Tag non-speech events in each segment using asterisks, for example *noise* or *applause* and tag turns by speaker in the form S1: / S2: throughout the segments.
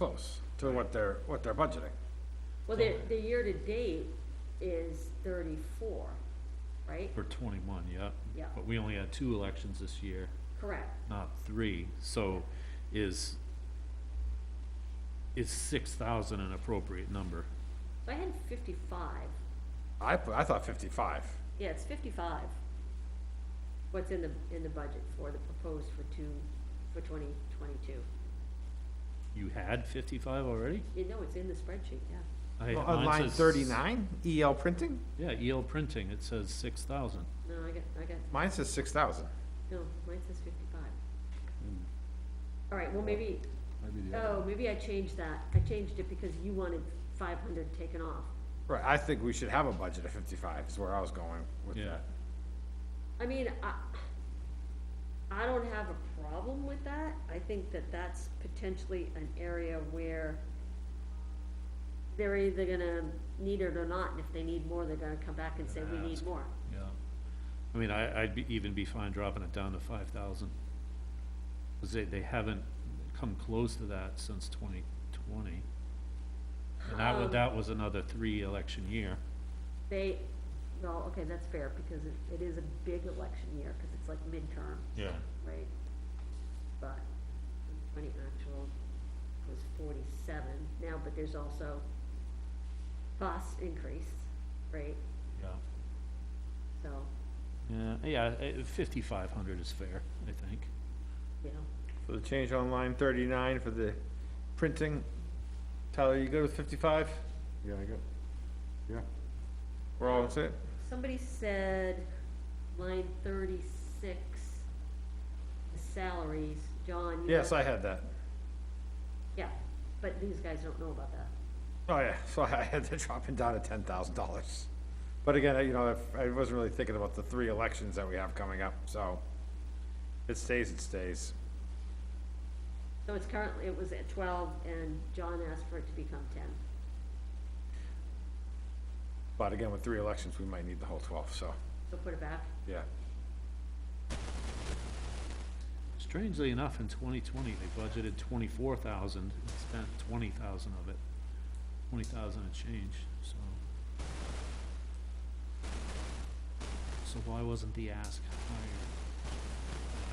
S1: close to what they're, what they're budgeting.
S2: Well, the, the year-to-date is thirty-four, right?
S3: For twenty-one, yeah.
S2: Yeah.
S3: But we only had two elections this year,
S2: Correct.
S3: not three, so is, is six thousand an appropriate number?
S2: So I had fifty-five.
S1: I, put- I thought fifty-five.
S2: Yeah, it's fifty-five. What's in the, in the budget for the proposed for two, for twenty twenty-two?
S3: You had fifty-five already?
S2: You know, it's in the spreadsheet, yeah.
S3: I-
S1: On
S3: mine
S1: line
S3: says-
S1: thirty-nine, EL printing,
S3: Yeah, EL printing, it says six thousand.
S2: No, I got, I got,
S1: mine says six thousand.
S2: no, mine says fifty-five. All right, Hmm. well, maybe, oh, maybe I changed that. I changed it because you wanted five hundred taken off.
S1: Right, I think we should have a budget of fifty-five is where I was going with
S3: Yeah.
S1: that.
S2: I mean, I, I don't have a problem with that, I think that that's potentially an area where they're either gonna need it or not, and if they need more, they're gonna come back and say, we need
S3: Ask.
S2: more.
S3: Yeah. I mean, I, I'd be, even be fine dropping it down to five thousand. Cause they, they haven't come close to that since twenty twenty. And that, wa-
S2: Um,
S3: that was another three election year.
S2: They, well, okay, that's fair, because it, it is a big election year, cause it's like midterm,
S3: Yeah.
S2: right? But, twenty actual was forty-seven now, but there's also cost increase, right?
S3: Yeah.
S2: So,
S3: Yeah, yeah, fifty-five hundred is fair, I think.
S2: you know.
S1: So the change on line thirty-nine for the printing, Tyler, you good with fifty-five?
S4: Yeah, I got, yeah,
S1: We're all set?
S2: Somebody said line thirty-six, the salaries, John. you
S1: Yes,
S2: know-
S1: I had that.
S2: Yeah, but these guys don't know about that.
S1: Oh, yeah, *laughs* so I had to drop it down to ten thousand dollars. But again, I- you know, if- I wasn't really thinking about the three elections that we have coming up, so it stays, it stays.
S2: So it's currently, it was at twelve and John asked for it to become ten.
S1: But again, with three elections, we might need the whole twelve, so,
S2: So put it back.
S1: yeah.
S3: Strangely enough, in twenty twenty, they budgeted twenty-four thousand, spent twenty thousand of it, twenty thousand and change, so. So why wasn't the ask higher?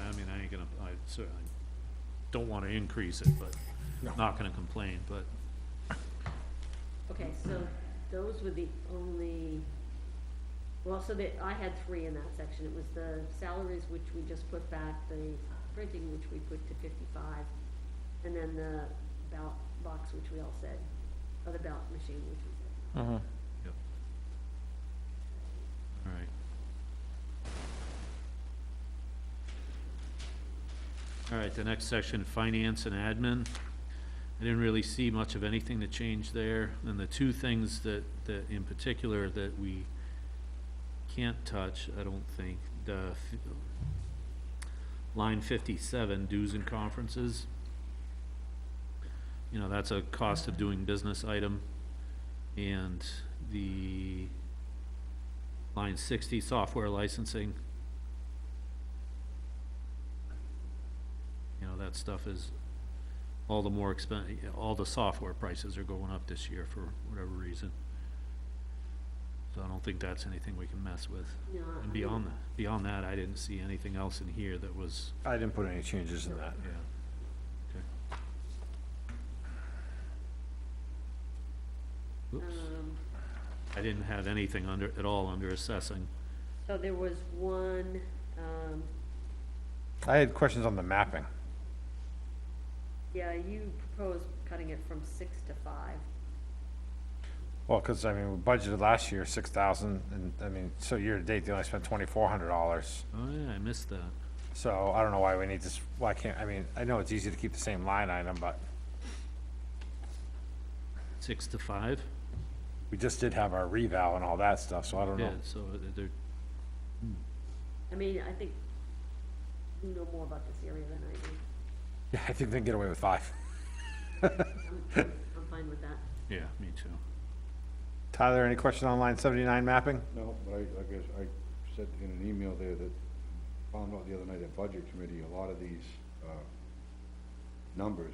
S3: I mean, I ain't gonna, I certainly don't wanna increase it,
S1: No.
S3: but, not gonna complain, but,
S2: Okay, so those were the only, well, so that, I had three in that section. It was the salaries, which we just put back, the printing, which we put to fifty-five, and then the ballot box, which we all said, or the ballot machine, which we said.
S3: alright. Alright, the next section, finance and admin. I didn't really see much of anything to change there, and the two things that, that in particular that we can't touch, I don't think, the f- line fifty-seven, dues and conferences. You know, that's a cost of doing business item, and the line sixty, software licensing. You know, that stuff is all the more expen, all the software prices are going up this year for whatever reason. So I don't think that's anything we can mess with.
S2: No, I
S3: And beyond,
S2: mean-
S3: that, beyond that, I didn't see anything else in here that was,
S1: I didn't put any changes in that.
S3: yeah. Okay. Oops,
S2: Um,
S3: I didn't have anything under, at all under assessing.
S2: so there was one, um,
S1: I had questions on the mapping.
S2: yeah, you proposed cutting it from six to five.
S1: Well, because, I mean, we budgeted last year six thousand, and, I mean, so year-to-date, they only spent twenty-four hundred dollars.
S3: Oh, yeah, I missed that.
S1: So I don't know why we need this, why can't, I mean, I know it's easy to keep the same line item, but
S3: Six to five?
S1: we just did have our revow and all that stuff, so I don't
S3: Yeah,
S1: know.
S3: so they're,
S2: I mean, I think you know more about this area than I do.
S1: Yeah, I think they can get away with five.
S2: I'm, I'm- I'm fine with that.
S3: yeah, me too.
S1: Tyler, any question on line seventy-nine mapping?
S4: no, but I, like I, s- I said in an email there that, found out the other night at Budget Committee, a lot of these, uh, numbers